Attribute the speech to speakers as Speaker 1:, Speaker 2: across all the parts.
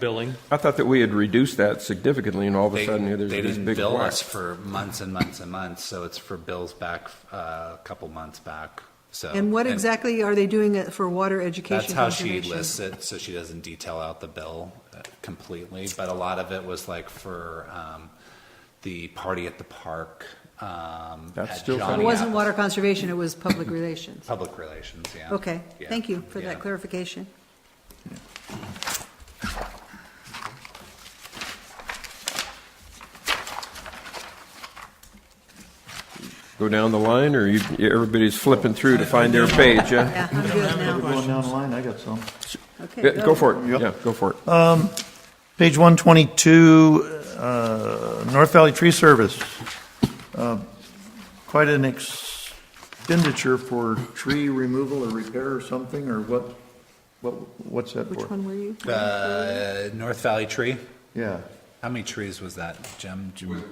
Speaker 1: billing.
Speaker 2: I thought that we had reduced that significantly, and all of a
Speaker 3: They,
Speaker 2: sudden, here there's
Speaker 3: they
Speaker 2: this
Speaker 3: didn't
Speaker 2: big
Speaker 3: bill
Speaker 2: whack.
Speaker 3: us for months and months and months, so it's for bills back uh, a couple months back. So
Speaker 4: And what exactly are they doing it for water education
Speaker 3: That's how she
Speaker 4: information?
Speaker 3: lists it, so she doesn't detail out the bill uh, completely. But a lot of it was like for um, the party at the park. Um,
Speaker 2: That's
Speaker 3: at
Speaker 2: still
Speaker 3: Johnny
Speaker 4: It wasn't
Speaker 3: Apple's-
Speaker 4: water conservation, it was public relations.
Speaker 3: Public relations. Yeah.
Speaker 4: Okay,
Speaker 3: Yeah.
Speaker 4: thank you for
Speaker 3: Yeah.
Speaker 4: that clarification.
Speaker 2: Go down the line, or you, everybody's flipping through to find their page, yeah?
Speaker 4: Yeah, I'm good now.
Speaker 5: Going down the line, I got some.
Speaker 4: Okay,
Speaker 2: Yeah, Go for it,
Speaker 5: Yep.
Speaker 2: yeah, go for it.
Speaker 5: Page 122, uh, North Valley Tree Service. Uh, Quite an expenditure for tree removal or repair or something, or what, What? what's that for?
Speaker 4: Which one were you?
Speaker 3: Uh, North Valley Tree.
Speaker 5: Yeah.
Speaker 3: How many trees was that, Jim? Do you-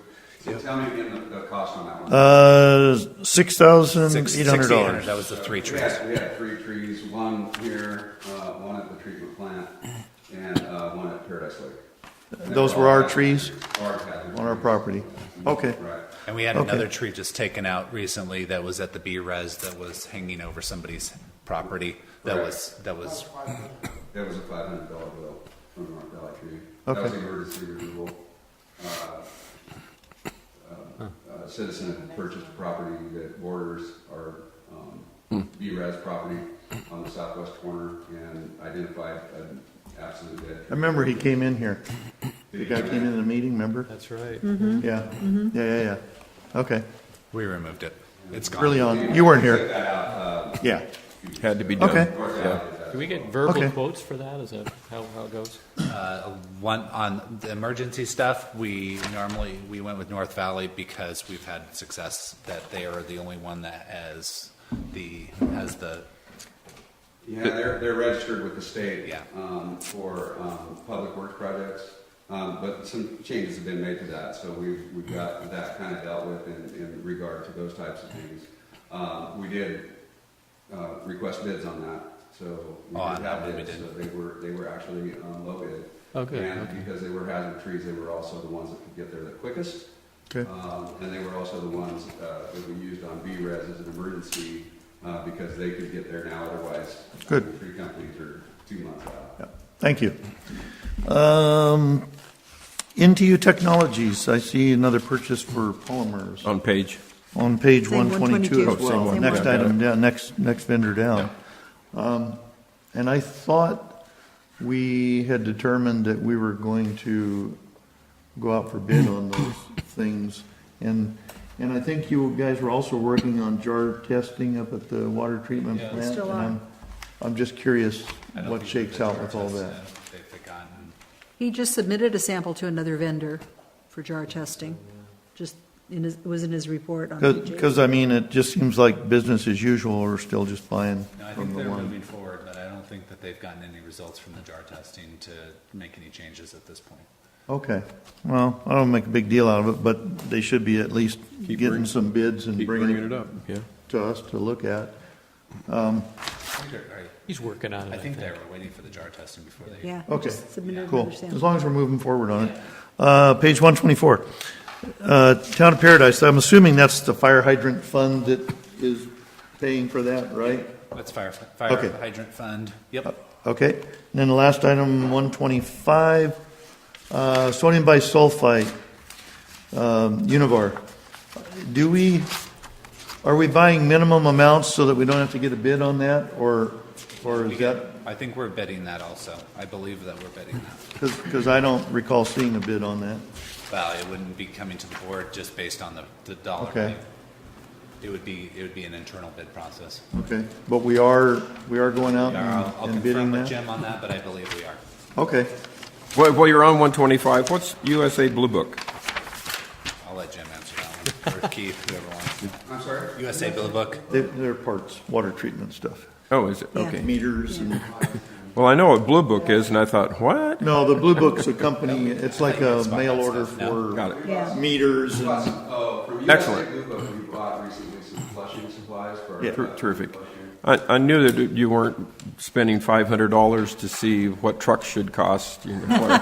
Speaker 6: Tell me again the, the cost on that one.
Speaker 5: Uh,
Speaker 3: Six- $6,800,
Speaker 5: $6,800.
Speaker 3: That was the three
Speaker 6: We
Speaker 3: trees.
Speaker 6: had, we had three trees, one here, uh, one at the treatment plant, and, uh, one at Paradise Lake. And
Speaker 5: Those
Speaker 6: they
Speaker 5: were our
Speaker 6: all
Speaker 5: trees
Speaker 6: Our hazard
Speaker 5: on our
Speaker 6: trees.
Speaker 5: property. Okay.
Speaker 6: Right.
Speaker 3: And we had
Speaker 5: Okay.
Speaker 3: another tree just taken out recently that was at the B res that was hanging over somebody's property. That
Speaker 6: Correct.
Speaker 3: was, that was,
Speaker 6: That was a five hundred dollar bill from North Valley Tree. That was
Speaker 5: Okay.
Speaker 6: emergency removal. Uh, uh, uh, Citizen had purchased a property that borders our,
Speaker 5: Hmm.
Speaker 6: um, B-Res property on the southwest corner and identified an absolute dead
Speaker 5: I remember he came in here. The guy came in the meeting, remember?
Speaker 1: That's right.
Speaker 4: Mm-hmm.
Speaker 5: Yeah, yeah, yeah, yeah. Okay,
Speaker 3: we removed it. It's gone.
Speaker 5: early on. You weren't
Speaker 6: Check
Speaker 5: here.
Speaker 6: that out, uh,
Speaker 5: Yeah,
Speaker 2: Had to be done.
Speaker 5: Okay.
Speaker 6: North
Speaker 2: Yeah.
Speaker 6: Valley.
Speaker 1: Do we get verbal
Speaker 5: Okay.
Speaker 1: quotes for that? Is that how, how it goes?
Speaker 3: Uh, One, on the emergency stuff, we normally, we went with North Valley because we've had success that they are the only one that has the, has the,
Speaker 6: Yeah, they're, they're registered with the state.
Speaker 3: Yeah.
Speaker 6: Um, for, um, public works projects, um, but some changes have been made to that, so we've, we've got that kind of dealt with in, in regard to those types of things. Um, we did, uh, request bids on that, so. we
Speaker 3: Oh, on
Speaker 6: did
Speaker 3: that
Speaker 6: have
Speaker 3: one we
Speaker 6: bids,
Speaker 3: did.
Speaker 6: So they were, they were actually, um, low bid.
Speaker 1: Oh, good, okay.
Speaker 6: And because they were hazard trees, they were also the ones that could get there the quickest.
Speaker 5: okay.
Speaker 6: Um, And they were also the ones uh, that we used on B-res as an emergency uh, because they could get there now otherwise. uh,
Speaker 5: Good.
Speaker 6: Three companies are two months out.
Speaker 5: Yeah, Thank you. Um, NTU Technologies, I see another purchase for polymers
Speaker 2: On page.
Speaker 5: on page
Speaker 4: Same
Speaker 5: 122
Speaker 4: 122.
Speaker 5: as well.
Speaker 4: Same one.
Speaker 5: Next
Speaker 2: Yeah, got
Speaker 5: item down, next, next vendor down. Um, And I thought we had determined that we were going to go out for bid on those things. And, and I think you guys were also working on jar testing up at the water treatment plant.
Speaker 4: Still
Speaker 5: and
Speaker 4: are.
Speaker 5: I'm- I'm just curious
Speaker 3: I don't
Speaker 5: what
Speaker 3: think
Speaker 5: shakes
Speaker 3: that
Speaker 5: out with all
Speaker 3: they've, uh,
Speaker 5: that.
Speaker 3: They've forgotten.
Speaker 4: He just submitted a sample to another vendor for jar testing, just in his, it was in his report on page eight.
Speaker 5: Because, I mean, it just seems like business as usual, we're still just buying
Speaker 3: No, I
Speaker 5: from
Speaker 3: think
Speaker 5: the
Speaker 3: they're
Speaker 5: one.
Speaker 3: moving forward, but I don't think that they've gotten any results from the jar testing to make any changes at this point.
Speaker 5: Okay, well, I don't make a big deal out of it, but they should be at least
Speaker 2: Keep
Speaker 5: getting
Speaker 2: bring-
Speaker 5: some bids and
Speaker 2: Keep
Speaker 5: bringing it
Speaker 2: up. Yeah.
Speaker 5: to us to look at.
Speaker 3: I think they're-
Speaker 1: He's working on it.
Speaker 3: I think they were waiting for the jar testing before they.
Speaker 4: Yeah. he
Speaker 5: Okay,
Speaker 4: just submitted
Speaker 5: cool,
Speaker 4: another sample.
Speaker 5: as long as we're moving forward on it. Uh, Page 124, Uh, Town of Paradise, I'm assuming that's the fire hydrant fund that is paying for that, right?
Speaker 3: That's fire, fire
Speaker 5: Okay. Oh,
Speaker 3: hydrant fund. Yep.
Speaker 5: Okay, and then the last item, 125, uh, sodium bisulfite, um, Univar. Do we, are we buying minimum amounts so that we don't have to get a bid on that, or, or is that,
Speaker 3: I think we're bidding that also. I believe that we're bidding that.
Speaker 5: because I don't recall seeing a bid on that.
Speaker 3: Well, it wouldn't be coming to the board just based on the, the dollar.
Speaker 5: Okay.
Speaker 3: value. It would be, it would be an internal bid process.
Speaker 5: Okay, but we are, we are going out
Speaker 3: I'll I'll
Speaker 5: and- and
Speaker 3: confirm
Speaker 5: bidding
Speaker 3: with
Speaker 5: that?
Speaker 3: Jim on that, but I believe we are.
Speaker 5: Okay,
Speaker 2: Well, while you're on 125, what's USA Blue Book?
Speaker 3: I'll let Jim answer that one, or Keith, whoever wants.
Speaker 6: I'm sorry?
Speaker 3: USA Bill Book.
Speaker 5: They- they're parts, water treatment stuff,
Speaker 2: Oh, is it?
Speaker 4: Yeah.
Speaker 2: Okay.
Speaker 5: meters and.
Speaker 2: Well, I know what Blue Book is, and I thought, what?
Speaker 5: No, the Blue Book's a company, it's like a
Speaker 3: It's about
Speaker 5: mail
Speaker 3: that
Speaker 5: order
Speaker 3: stuff, no.
Speaker 5: for
Speaker 2: Got it.
Speaker 4: Yeah,
Speaker 5: meters
Speaker 6: Plus,
Speaker 5: and,
Speaker 6: oh, from USA
Speaker 2: Excellent.
Speaker 6: Blue Book, we bought recently some flushing supplies for. our-
Speaker 5: Yeah.
Speaker 2: Ter- Terrific. I, I knew that you weren't spending $500 to see what trucks should cost, you know, or-